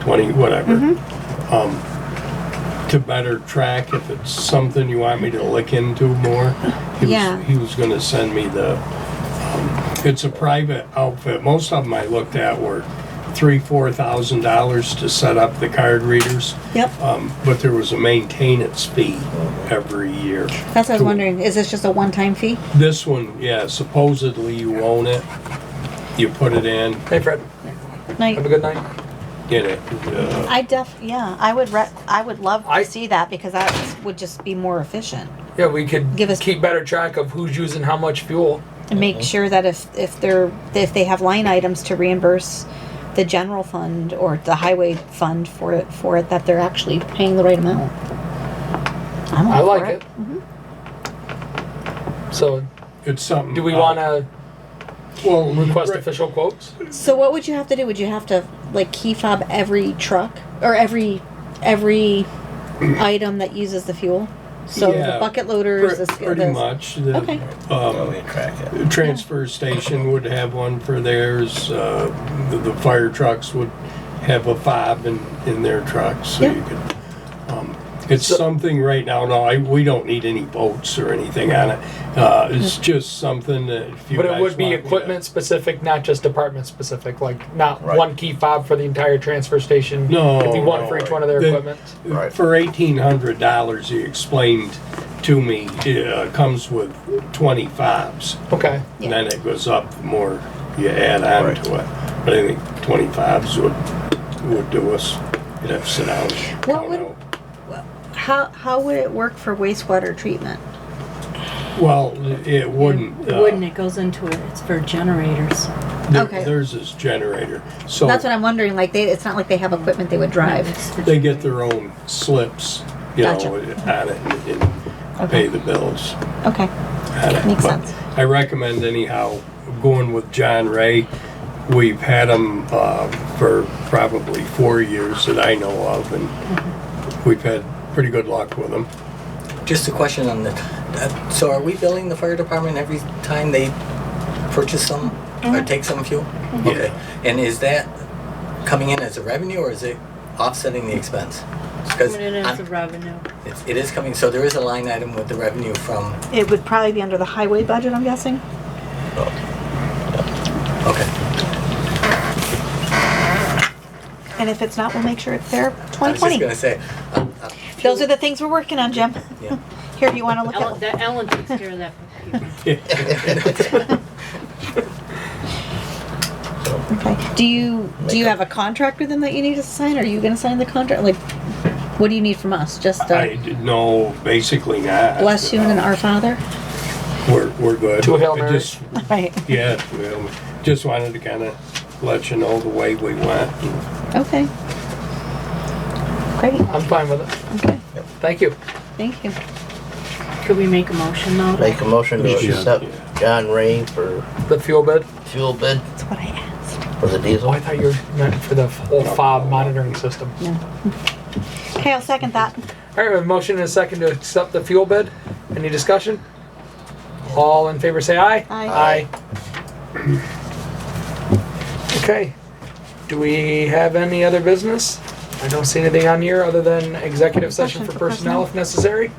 twenty, whatever. Um, To better track if it's something you want me to look into more. He was- Yeah. He was gonna send me the, um, it's a private outfit. Most of them I looked at were three, four thousand dollars to set up the card readers. Yep. Um, but there was a maintenance fee every year. That's what I was wondering. Is this just a one-time fee? This one, yeah, supposedly you own it, you put it in, Hey Fred, have a Like, good night. get it. uh, I def, yeah, I would re, I would love I- to see that because that would just be more efficient. Yeah, we could Give us- keep better track of who's using how much fuel. And Uh-huh. make sure that if, if they're, if they have line items to reimburse the general fund or the highway fund for it, for it, that they're actually paying the right amount. I'm all I for like it. So, It's something. do we I'll- want to Well, request Uh, right- official quotes? So what would you have to do? Would you have to like key fob every truck or every every item that uses the fuel? So Yeah, the bucket loaders, pre- the, sk- Pretty the- much. The, Okay. um, Well, we track it. the Transfer station would have one for theirs, uh, the, the fire trucks would have a fob in, in their trucks, so Yeah. you could. um, It's something right now, no, I, we don't need any boats or anything on it, uh, it's Mm-hmm. just something that if you But it guys would be want me to- equipment specific, not just department specific. Like, not Right. one key fob for the entire transfer station. No, It'd be one no, for each one of their the- equipment. Right. For eighteen hundred dollars, he explained to me, it uh, comes with twenty fobs. Okay. And then it goes up the more you add on Right. to it. But I think twenty fives would, would do us. You'd have to sit down. and What count would- out. How how would it work for wastewater treatment? Well, it wouldn't. It uh, wouldn't, it goes into it, it's for generators. there- Okay. Theirs is generator, Oh. so. That's what I'm wondering. Like they, it's not like they have equipment they would drive. It's for They get their own slips, you know, Gotcha. on it and- and pay Okay. the bills. Okay, at it. Makes But sense. I recommend anyhow, going with John Ray. We've had him uh, for probably four years that I know of, and Mm-hmm. we've had pretty good luck with him. Just a question on the, uh, so are we billing the fire department every time they purchase some Mm-hmm. or take some fuel? Okay, and is that coming in as a revenue or is it offsetting the expense? Because Coming in as a revenue. it is coming, so there is a line item with the revenue from, it would probably be under the highway budget. I'm guessing. okay. And if it's not, we'll make sure it's there. I was just 2020. gonna say, uh, uh, Those are the things we're working on, Jim. yeah. Here, you want to look Ellen, at? that Ellen takes care of that for people. Okay. Do you do you have a contract with them that you need to sign? Are you going to sign the contract? Like, what do you need from us? Just I a did- no, basically not. bless you and an Our Father. We're, we're good. To a Hail I Mary. just- Right. Yeah, well, just wanted to kind of let you know the way we went. Okay. Great. I'm fine with it. Okay. Thank you. Thank you. Could we make a motion though? Make a motion to Yeah. accept John Ray for The fuel bid. fuel bid That's what I asked. for the Oh, diesel. I thought you were meant for the whole fob monitoring system. Okay, I'll second that. All right, we have a motion and a second to accept the fuel bid. Any discussion? All in favor, say aye. Aye. Aye. Okay. Do we have any other business? I don't see anything on here other than executive session for personnel if necessary.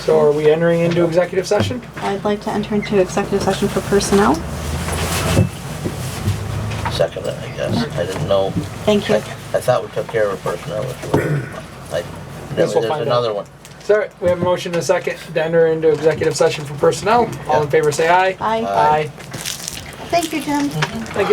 So are we entering into executive session? I'd like to enter into executive session for personnel. Second, it, I guess. I didn't know. Thank I you. I thought we took care of a personnel issue. I- Guess There's we'll find out. another one. So we have a motion and a second to enter into executive session for personnel. All in favor, say aye. Aye. Aye. Thank you, Jim.